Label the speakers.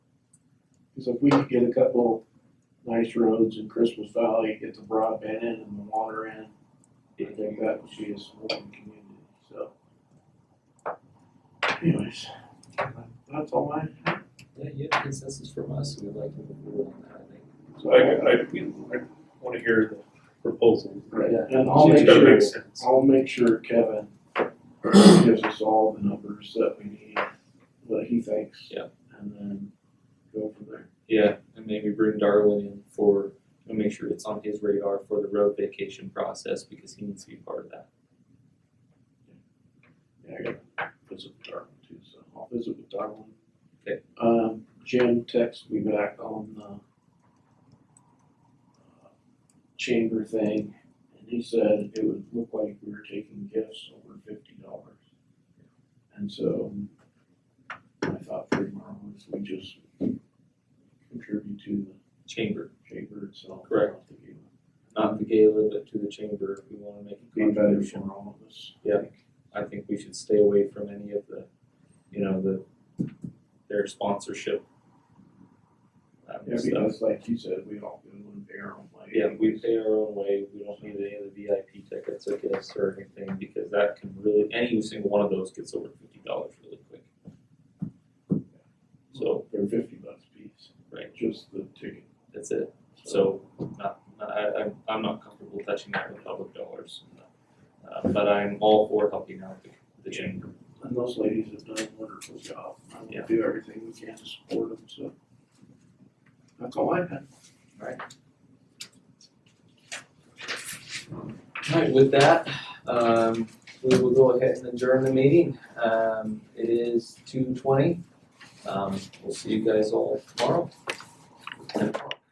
Speaker 1: So if we could get a couple nice roads in Christmas Valley, get the broadband in and the water in, I think that would be a smoking community, so. Anyways, that's all I,
Speaker 2: Yeah, you have consensus from us, we'd like to move forward on that, I think.
Speaker 1: so
Speaker 3: I,
Speaker 1: I got,
Speaker 3: I, I wanna hear the proposal.
Speaker 1: yeah, and I'll
Speaker 2: Yeah,
Speaker 1: make
Speaker 3: It's gotta
Speaker 1: sure,
Speaker 3: make sense.
Speaker 1: I'll make sure Kevin gives us all the numbers that we need, what he thinks.
Speaker 2: Yeah.
Speaker 1: And then go from there.
Speaker 2: Yeah, and maybe bring Darwin in for, and make sure it's on his radar for the road vacation process, because he needs to be part of that.
Speaker 1: Yeah, I gotta visit with Darwin too, so I'll visit with Darwin.
Speaker 2: Okay.
Speaker 1: Um, Jim texted me back on the uh, chamber thing, and he said it would look like we were taking gifts over fifty dollars. And so I thought for tomorrow, if we just contribute to
Speaker 2: Chamber,
Speaker 1: the chamber itself.
Speaker 2: Correct.
Speaker 1: I think it would
Speaker 2: not the gala, but to the chamber, if we wanna make a
Speaker 1: Be better
Speaker 2: contribution.
Speaker 1: for all of us.
Speaker 2: I think we should stay away from any of the, you know, the, their sponsorship. um,
Speaker 1: Yeah,
Speaker 2: stuff.
Speaker 1: because like you said, we all go and pay our own way.
Speaker 2: Yeah, we pay our own way, we don't need any of the VIP tickets or gifts or anything, because that can really, any single one of those gets over fifty dollars really quick. So,
Speaker 1: They're fifty bucks a piece.
Speaker 2: Right.
Speaker 1: Just the ticket.
Speaker 2: that's it, so, not, not- I, I'm, I'm not comfortable touching that with public dollars. Uh, but I'm all for helping out the, the chamber,
Speaker 1: And those ladies have done a wonderful job. I'm
Speaker 2: Yeah.
Speaker 1: gonna do everything we can to support them, so. That's all I have.
Speaker 2: Alright, with that, um, we will go ahead and adjourn the meeting, um, it is two twenty. Um, we'll see you guys all tomorrow.